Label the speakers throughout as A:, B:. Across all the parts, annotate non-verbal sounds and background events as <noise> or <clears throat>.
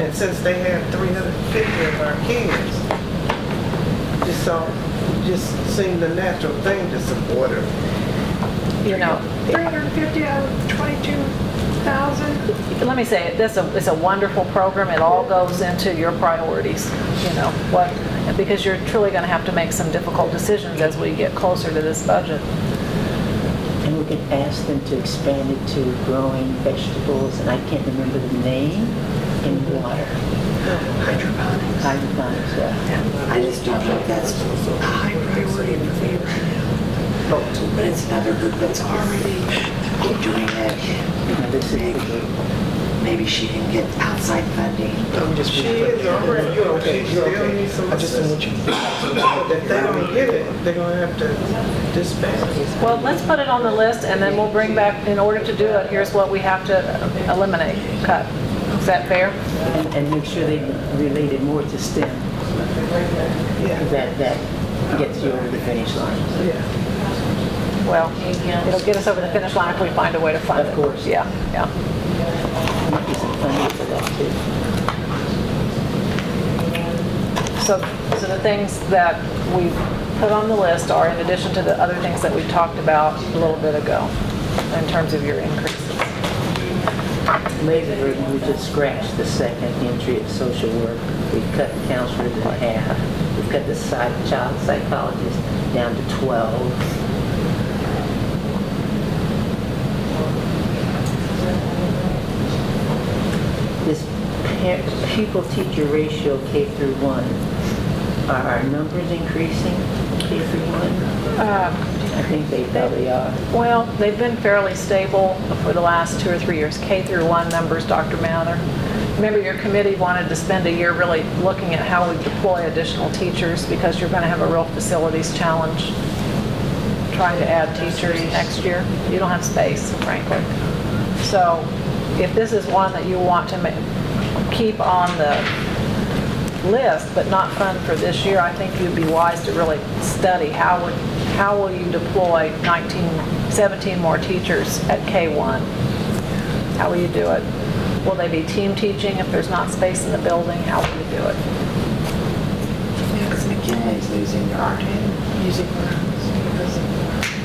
A: And since they have 350 of our kids, just so, just seemed the natural thing to support her.
B: You know,
C: 350 out of 22,000?
B: let me say, it, this a- is a wonderful program. It all goes into your priorities, you know, what, because you're truly going to have to make some difficult decisions as we get closer to this budget.
D: And we can ask them to expand it to growing vegetables, and I can't remember the name, in water.
C: Hydroponics.
D: Hydroponics, yeah.
C: I just don't think that's a high priority for me right
D: Oh.
C: now. But it's another group that's already doing it.
D: You know, This is the group.
C: Maybe she can get outside funding.
A: She is already, you know, she still needs some assistance. But if they don't get it, they're gonna have to disband it.
B: Well, let's put it on the list, and then we'll bring back, in order to do it, here's what we have to eliminate, cut. Is that fair?
D: And and make sure they relate it more to STEM,
A: Yeah,
D: that, that gets you over the finish line.
A: yeah.
B: Well, it'll get us over the finish line if we find a way to fund it.
D: Of course.
B: Yeah, yeah.
D: Might be some funding for that, too.
B: So, so the things that we put on the list are in addition to the other things that we talked about a little bit ago, in terms of your increases.
D: Labor burden, we just scratched the second entry of social work. We cut counselors in half. We've cut the psych, child psychologist down to 12. This pa- pupil-teacher ratio K through 1, are our numbers increasing K through 1? I think they probably are.
B: Well, they've been fairly stable for the last two or three years, K through 1 numbers, Dr. Mather. Remember, your committee wanted to spend a year really looking at how we deploy additional teachers because you're going to have a real facilities challenge trying to add teachers next year. You don't have space, frankly. So if this is one that you want to ma- keep on the list, but not fund for this year, I think you'd be wise to really study how would, how will you deploy 19, 17 more teachers at K-1? How will you do it? Will they be team teaching if there's not space in the building? How will you do it?
C: Because McKinley's losing their art and music programs.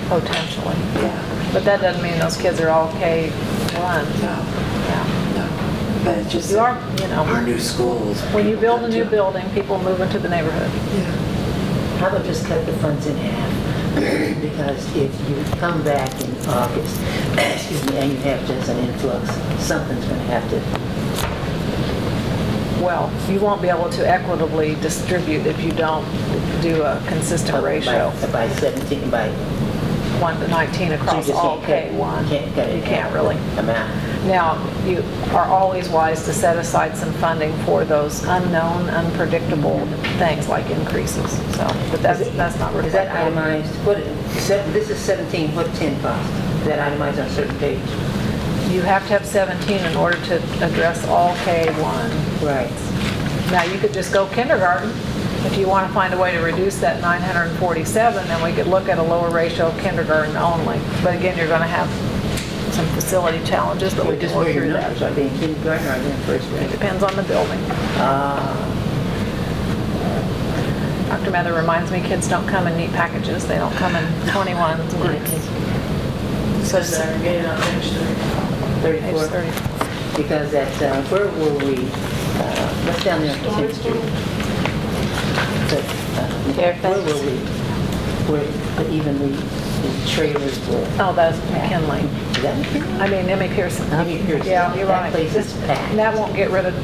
B: Potentially.
C: Yeah,
B: But that doesn't mean those kids are all K-1.
C: no,
B: Yeah.
C: no. But it's just
B: You are, you
C: our
B: know,
C: new schools.
B: when you build a new
C: people
B: building, people move into the neighborhood.
C: come to- Yeah.
D: How about just cut the funds in half? <clears throat> Because if you come back in August, <clears throat> excuse me, and you have just an influx, something's going to have to,
B: Well, you won't be able to equitably distribute if you don't do a consistent ratio.
D: by- by 17, by...
B: one to 19
D: so you
B: across
D: just
B: all
D: can't cut-
B: K-1.
D: Can't cut it
B: You
D: in
B: can't
D: half
B: really.
D: Amount.
B: Now, you are always wise to set aside some funding for those unknown, unpredictable things like increases, so, but that's,
D: Is it-
B: that's not
D: Is that
B: reflected.
D: itemized, what, se- this is 17, what 10 cost? Is that itemized on a certain page?
B: You have to have 17 in order to address all K-1.
D: Right.
B: Now, you could just go kindergarten. If you want to find a way to reduce that 947, then we could look at a lower ratio of kindergarten only. But again, you're going to have some facility challenges, but we
D: Well,
B: can
D: just
B: work
D: where your
B: through
D: numbers
B: that.
D: are, being kindergarten or being first
B: It
D: grade?
B: depends on the building.
D: Ah,
B: Dr. Mather reminds me, kids don't come in neat packages, they don't come in 21s groups.
E: So segregated on Main Street.
D: 34.
B: Age 30.
D: Because at, uh, where were we, uh, what's down there on 10th Street? But, uh, Where were we, where the- even the the trailers were?
B: Oh, that's McKinley.
D: Is that McKinley?
B: I mean, Emmy Pearson.
D: I mean, here's-
B: Yeah, you're right.
D: That place is
B: And
D: packed.
B: that won't get rid of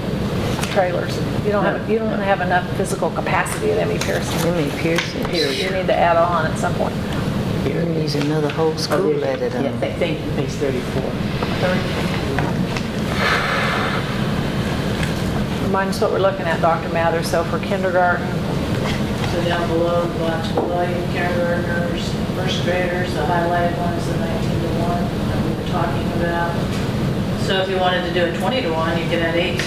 B: trailers. You don't have,
D: No.
B: you don't have enough physical capacity at Emmy Pearson.
F: Emily Pearson,
B: You need to add on at some point.
F: Emily's another whole
D: Oh,
F: school at it.
D: Yeah,
F: um,
D: thank- thank you, page 34.
B: Remind us what we're looking at, Dr. Mather, so for kindergarten,
E: So down below, blocks below, you kindergartners, first graders, the highlighted ones, the 19 to 1 that we were talking about. So if you wanted to do a 20 to 1, you could add eight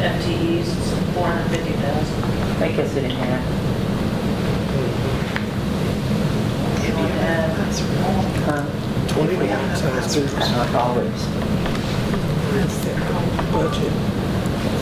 E: FTEs, it's 450,000.
D: I guess it didn't have,
E: If you add
D: huh?
A: Twenty-one times three
D: Not always.
A: is their whole budget.